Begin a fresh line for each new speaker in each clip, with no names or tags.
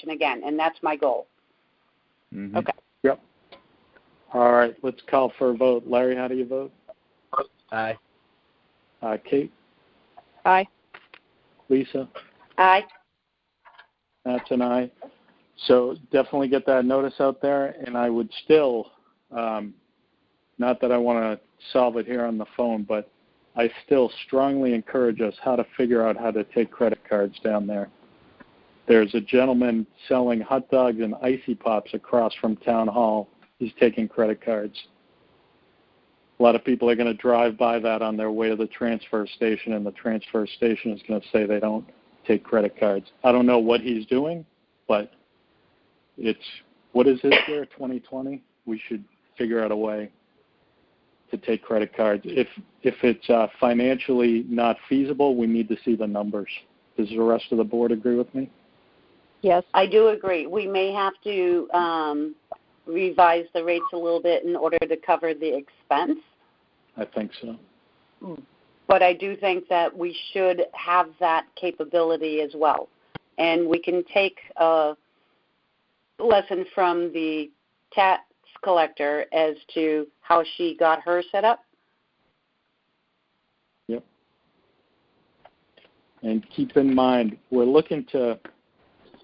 action again, and that's my goal.
Mhm.
Okay.
Yep. All right, let's call for a vote. Larry, how do you vote?
Aye.
Uh, Kate?
Aye.
Lisa?
Aye.
That's an aye. uh, So definitely get that notice out there, and I would still, um, not that I want to solve it here on the phone, but I still strongly encourage us how to figure out how to take credit cards down there. There's a gentleman selling hot dogs and icy pops across from town hall. He's taking credit cards. A lot of people are going to drive by that on their way to the transfer station, and the transfer station is going to say they don't take credit cards. I don't know what he's doing, but it's what is this year, 2020? We should figure out a way to take credit cards. If if it's uh, financially not feasible, we need to see the numbers. Does the rest of the board agree with me?
Yes.
I do agree. We may have to um, revise the rates a little bit in order to cover the expense,
I think so.
but I do think that we should have that capability as well. And we can take a lesson from the tax collector as to how she got her set up.
And keep in mind, we're looking to.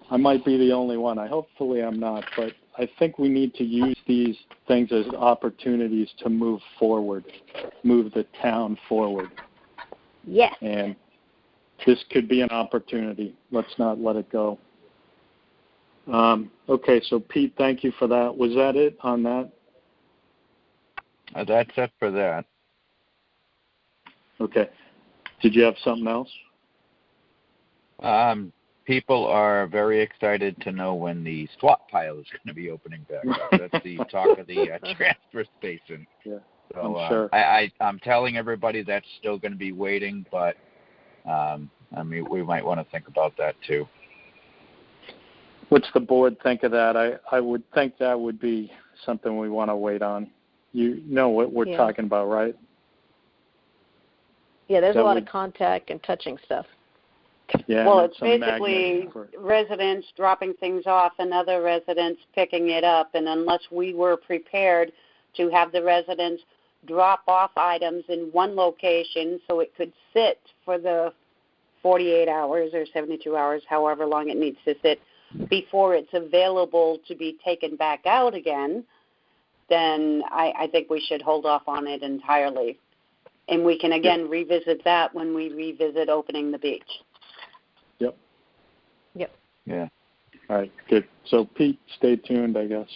I might be the only one. I hopefully I'm not, but I think we need to use these things as opportunities to move forward, move the town forward.
Yes.
and this could be an opportunity. Let's not let it go. Um, okay, so Pete, thank you for that. Was that it on that?
Uh, That's it for that.
Okay. Did you have something else?
Um, people are very excited to know when the swap pile is going to be opening back up. That's the talk of the uh, transfer station.
Yeah,
so,
I'm
uh,
sure.
I, I, I'm telling everybody that's still going to be waiting, but um, I mean, we might want to think about that too.
What's the board think of that? I, I would think that would be something we want to wait on. You know what we're
Yeah.
talking about, right?
Yeah, there's a
That
lot
would-
of contact and touching stuff.
Yeah.
well,
and
it's
some magnet
basically
for-
residents dropping things off and other residents picking it up. And unless we were prepared to have the residents drop off items in one location so it could sit for the 48 hours or 72 hours, however long it needs to sit, before it's available to be taken back out again, then I, I think we should hold off on it entirely. And we can again revisit that when we revisit opening the beach.
Yeah,
All right, good. So Pete, stay tuned, I guess.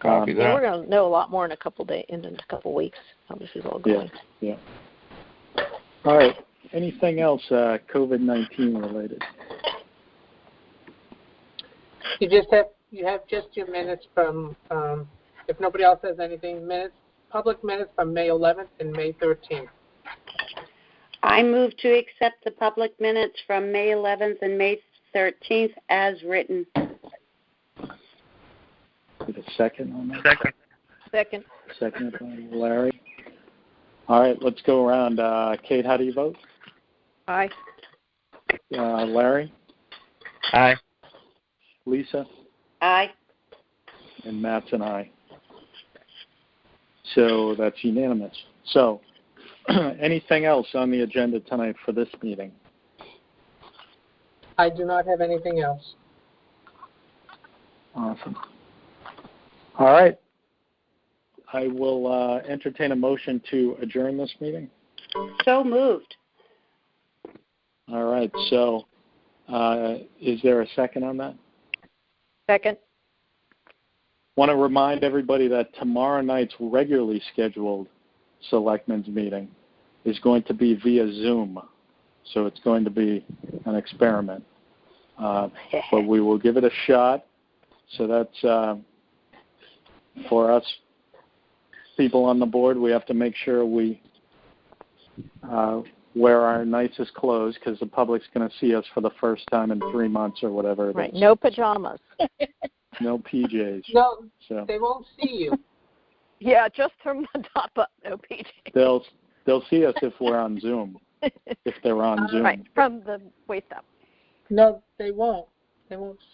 copy
Um,
And
that.
we're gonna know a lot more in a couple days, in a couple weeks, how this is all
Yeah.
going.
All right. Anything else uh, COVID-19 related?
You just have, you have just your minutes from, um, if nobody else has anything, minutes, public minutes from May 11th and May 13th.
I move to accept the public minutes from May 11th and May 13th as written.
Did a second on that?
Second.
Second by Larry. All right, let's go around. Uh, Kate, how do you vote?
Aye.
Uh, Larry,
Aye.
Lisa,
Aye.
and Matt's and I. So that's unanimous. So, anything else on the agenda tonight for this meeting?
I do not have anything else.
Awesome. All right. I will uh, entertain a motion to adjourn this meeting.
So moved.
All right. So, uh, is there a second on that?
Second.
want to remind everybody that tomorrow night's regularly scheduled selectmen's meeting is going to be via Zoom. So it's going to be an experiment. Uh, but we will give it a shot. So that's uh, for us people on the board, we have to make sure we uh, wear our nicest clothes because the public's going to see us for the first time in three months or whatever. it
Right.
is.
No pajamas.
No PJs.
No,
So.
they won't see you.
Yeah, just from the top up. No PJ.
they'll they'll see us if we're on Zoom. If they're on Zoom.
Right. From the waist up.
No, they won't. They won't